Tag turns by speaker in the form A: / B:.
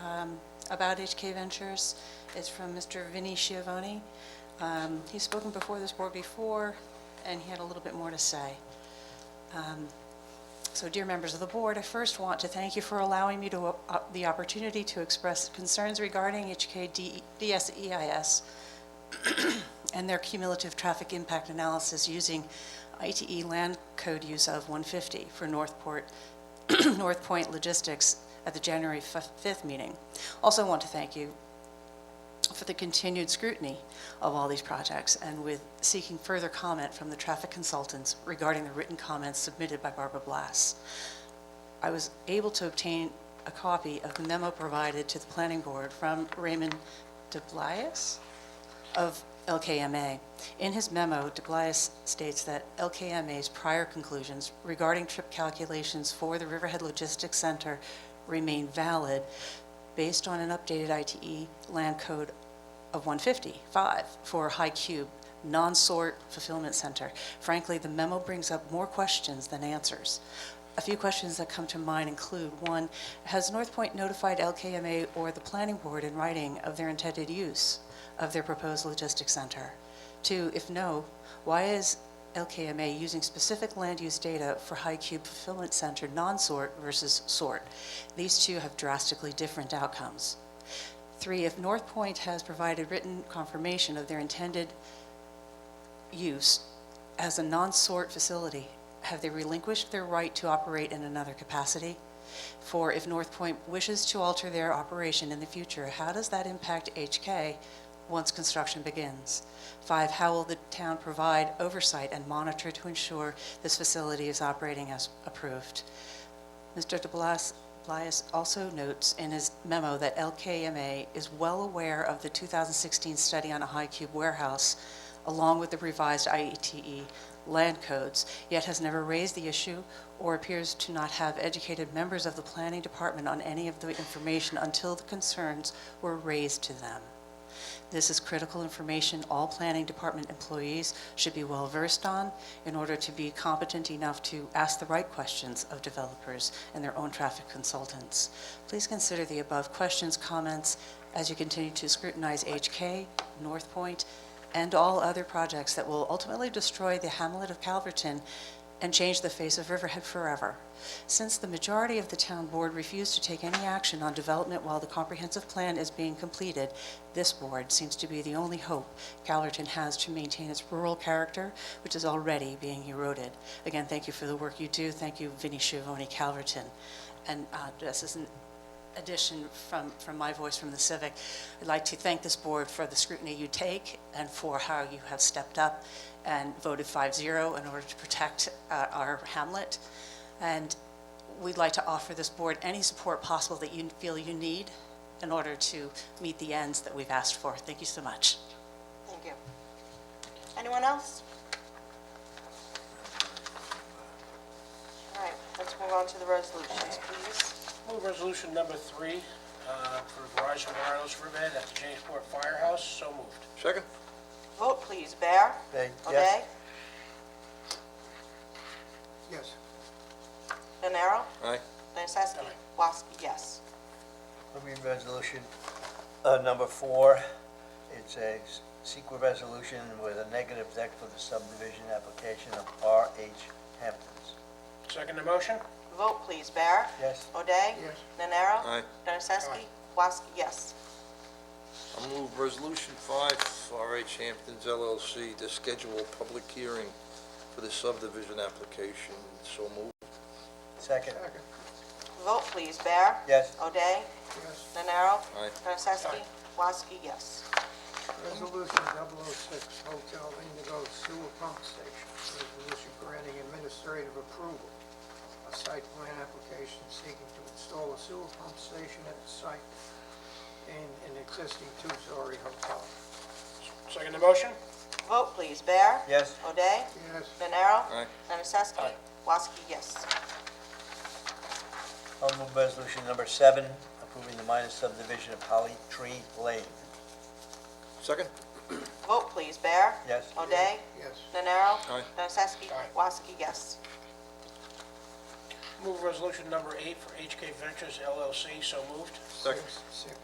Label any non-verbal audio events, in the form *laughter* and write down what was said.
A: um, about HK Ventures. It's from Mr. Vinnie Schiavone. Um, He's spoken before this board before, and he had a little bit more to say. Um, So dear members of the board, I first want to thank you for allowing me to, uh, the opportunity to express concerns regarding HK DSEIS E *coughs* and their cumulative traffic impact analysis using ITE land code use of 150 for Northport, *clears throat* North Point Logistics at the January 5th meeting. Also want to thank you for the continued scrutiny of all these projects and with seeking further comment from the traffic consultants regarding the written comments submitted by Barbara Blas. I was able to obtain a copy of the memo provided to the planning board from Raymond DeBlias of LKMA. In his memo, DeGlias states that LKMA's prior conclusions regarding trip calculations for the Riverhead Logistics Center remain valid based on an updated ITE land code of 155 for High Cube Non-Sort Fulfillment Center. Frankly, the memo brings up more questions than answers. A few questions that come to mind include, one, has North Point notified LKMA or the planning board in writing of their intended use of their proposed logistics center? Two, if no, why is LKMA using specific land use data for High Cube Fulfillment Center non-sort versus sort? These two have drastically different outcomes. Three, if North Point has provided written confirmation of their intended use as a non-sort facility, have they relinquished their right to operate in another capacity? For if North Point wishes to alter their operation in the future, how does that impact HK once construction begins? Five, how will the town provide oversight and monitor to ensure this facility is operating as approved? Mr. de Blas Blias also notes in his memo that LKMA is well aware of the 2016 study on a high cube warehouse, along with the revised IETE E land codes, yet has never raised the issue or appears to not have educated members of the planning department on any of the information until the concerns were raised to them. This is critical information all planning department employees should be well-versed on in order to be competent enough to ask the right questions of developers and their own traffic consultants. Please consider the above questions, comments, as you continue to scrutinize HK, North Point, and all other projects that will ultimately destroy the hamlet of Calverton and change the face of Riverhead forever. Since the majority of the town board refused to take any action on development while the comprehensive plan is being completed, this board seems to be the only hope Calverton has to maintain its rural character, which is already being eroded. Again, thank you for the work you do. Thank you, Vinnie Schiavone, Calverton. And uh, this is an addition from, from my voice from the Civic. I'd like to thank this board for the scrutiny you take and for how you have stepped up and voted 5-0 in order to protect uh, our hamlet. And we'd like to offer this board any support possible that you feel you need in order to meet the ends that we've asked for. Thank you so much.
B: Thank you. Anyone else? All right, let's move on to the resolutions, please.
C: Move resolution number three uh, for Verizon Wireless Riverhead at the Jamesport Firehouse, so moved.
D: Second?
B: Vote, please. Bear?
D: Nay, yes.
B: O'Day?
E: Yes.
B: Nenaro?
D: Aye.
B: Nocesky? Woski, yes.
E: I mean, resolution uh, number four, it's a s- secret resolution with a negative deck for the subdivision application of RH Hamptons.
C: Second the motion?
B: Vote, please. Bear?
E: Yes.
B: O'Day?
E: Yes.
B: Nenaro?
D: Aye.
B: Nocesky?
C: Aye.
B: Woski, yes.
D: I'll move Resolution 5, RH Hamptons LLC, to schedule a public hearing for the subdivision application, so moved.
E: Second.
B: Vote, please. Bear?
E: Yes.
B: O'Day?
F: Yes,
B: Nenaro?
D: Aye.
B: Nocesky? Woski, yes.
F: resolution 006, Hotel Indigo Sewer Pump Station, resolution granting administrative approval. A site plan application seeking to install a sewer pump station at the site in an existing two-story hotel.
C: Second the motion?
B: Vote, please. Bear?
E: Yes.
B: O'Day?
F: Yes,
B: Nenaro?
D: Aye.
B: Nocesky?
C: Aye.
B: Woski, yes.
E: I'll move resolution number seven, approving the minor subdivision of Holly Tree Lane.
D: Second?
B: Vote, please. Bear?
E: Yes.
B: O'Day?
F: yes,
B: Nenaro?
D: Aye.
B: Nocesky?
C: Aye.
B: Woski, yes.
C: Move resolution number eight for HK Ventures LLC, so moved.
D: Second.
F: six,